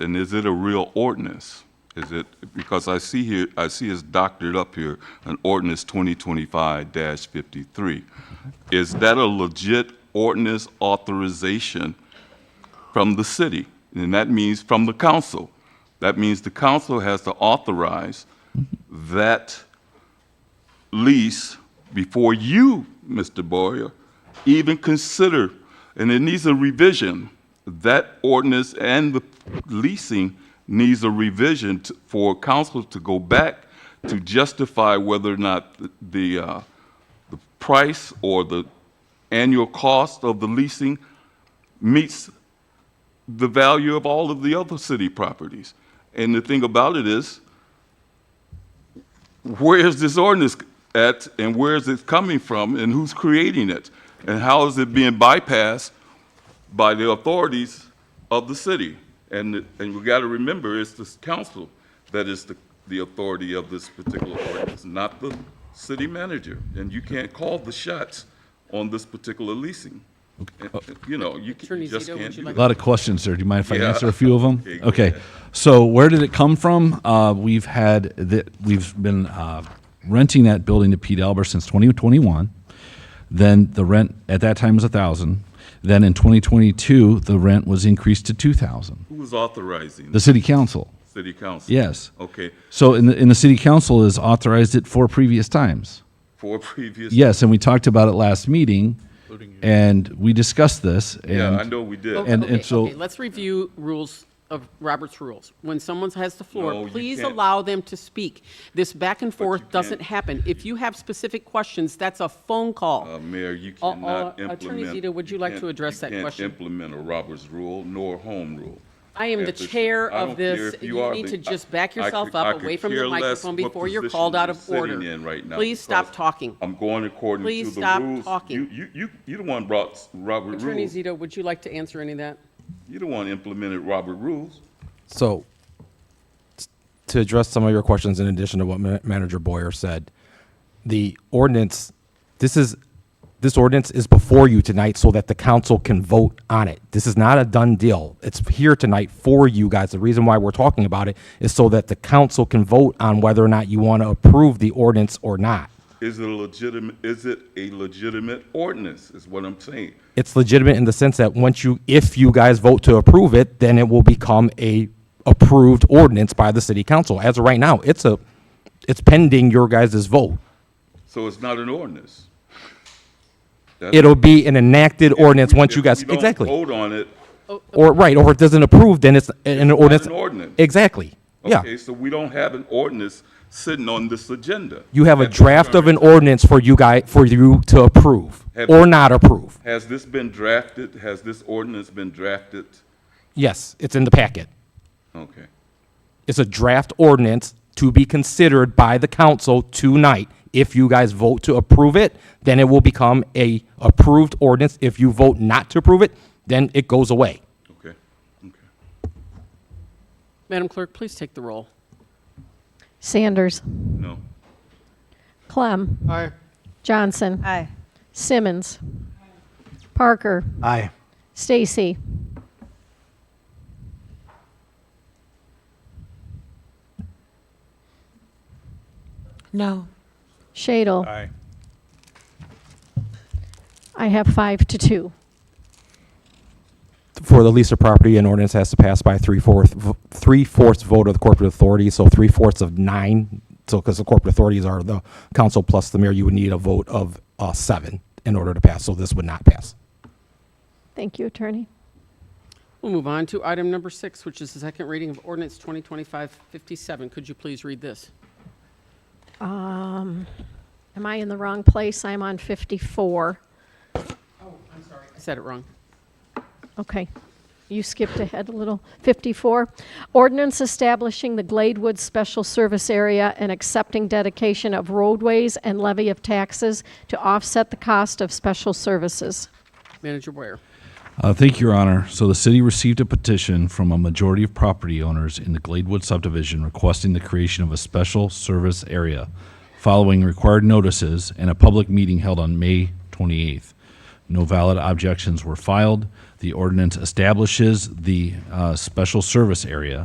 And is it a real ordinance? Is it, because I see here, I see it's doctored up here, an ordinance 2025-53. Is that a legit ordinance authorization from the city? And that means from the council. That means the council has to authorize that lease before you, Mr. Boyer, even consider, and it needs a revision. That ordinance and the leasing needs a revision to- for council to go back to justify whether or not the- the, uh, the price or the annual cost of the leasing meets the value of all of the other city properties. And the thing about it is, where is this ordinance at and where is it coming from and who's creating it? And how is it being bypassed by the authorities of the city? And, and we gotta remember, it's this council that is the, the authority of this particular ordinance, not the city manager. And you can't call the shots on this particular leasing. And, You know, you c- Attorney you just Zito, would can't you do like that. to A lot of questions there. Do you mind if I Yeah. answer a few of them? Okay, go Okay. ahead. So where did it come from? Uh, we've had that we've been uh, renting that building to Pete Albert since 2021. Then the rent at that time was a thousand. Then in 2022, the rent was increased to 2,000. Who is authorizing The the city council, city council? yes. Okay, So in the, in the city council has authorized it four previous times. for previous. Yes, and we talked about it last meeting, and we discussed this. And Yeah, I know we did. Oh, and- and okay, so- okay, Let's review rules of Robert's rules. When someone has the No, floor, you please can't. allow them to speak. This back and forth can't. doesn't happen. If you have specific questions, that's a phone Uh, call. Mayor, you Uh, uh, cannot implement. Attorney Zito, would you like to can't- address that question? You can't implement a Roberts rule nor home rule. I am the At this- chair I of don't care this. if You are need the- to just I- back I yourself could- up, I could away from the care less microphone what before you're position called out you're of order. sitting in right now Please because stop talking. I'm going according to the Please rules. stop You- talking. You, you, you the one brought Robert Attorney rules. Zito, would you like to answer any of that? You the one implemented Robert rules. So, t- to address some of your questions, in addition to what Ma- Manager Boyer said, the ordinance, this is, this ordinance is before you tonight so that the council can vote on it. This is not a done deal. It's here tonight for you guys. The reason why we're talking about it is so that the council can vote on whether or not you want to approve the ordinance or not. Is it a legitimate, is it a legitimate ordinance, is what I'm saying. It's legitimate in the sense that once you, if you guys vote to approve it, then it will become a approved ordinance by the city council. As of right now, it's a, it's pending your guys' vote. So it's not an ordinance. That's- It'll be an enacted ordinance If we- once you if guys, we don't exactly. Vote on it, Or, right, or if it doesn't approve, then it's an ordinance. an ordinance. Exactly, yeah. Okay, so we don't have an ordinance sitting on this agenda. You have a At this draft of time. an ordinance for you guy, for you to approve Have- or not approve. Has this been drafted? Has this ordinance been drafted? Yes, it's in the packet. Okay. It's a draft ordinance to be considered by the council tonight. If you guys vote to approve it, then it will become a approved ordinance. If you vote not to approve it, then it goes away. Okay. Okay. Madam Clerk, please take the roll. Sanders. No. Clem. Aye. Johnson. Aye. Simmons. Parker. Aye. Stacy. No. Shadle. Aye. I have five to two. For the lease of property, an ordinance has to pass by three-fourth, v- three-fourths vote of the corporate authority, so three-fourths of nine. So, because the corporate authorities are the council plus the mayor, you would need a vote of uh, seven in order to pass, so this would not pass. Thank you, Attorney. We'll move on to item number six, which is the second reading of ordinance 2025-57. Could you please read this? Am I in the wrong place? I'm on 54. I said it wrong. Okay. You skipped ahead a little. 54, ordinance establishing the Gladewood Special Service Area and accepting dedication of roadways and levy of taxes to offset the cost of special services. Manager Boyer. Uh, thank you, Your Honor. So the city received a petition from a majority of property owners in the Gladewood subdivision requesting the creation of a special service area following required notices and a public meeting held on May 28th. No valid objections were filed. The ordinance establishes the uh, special service area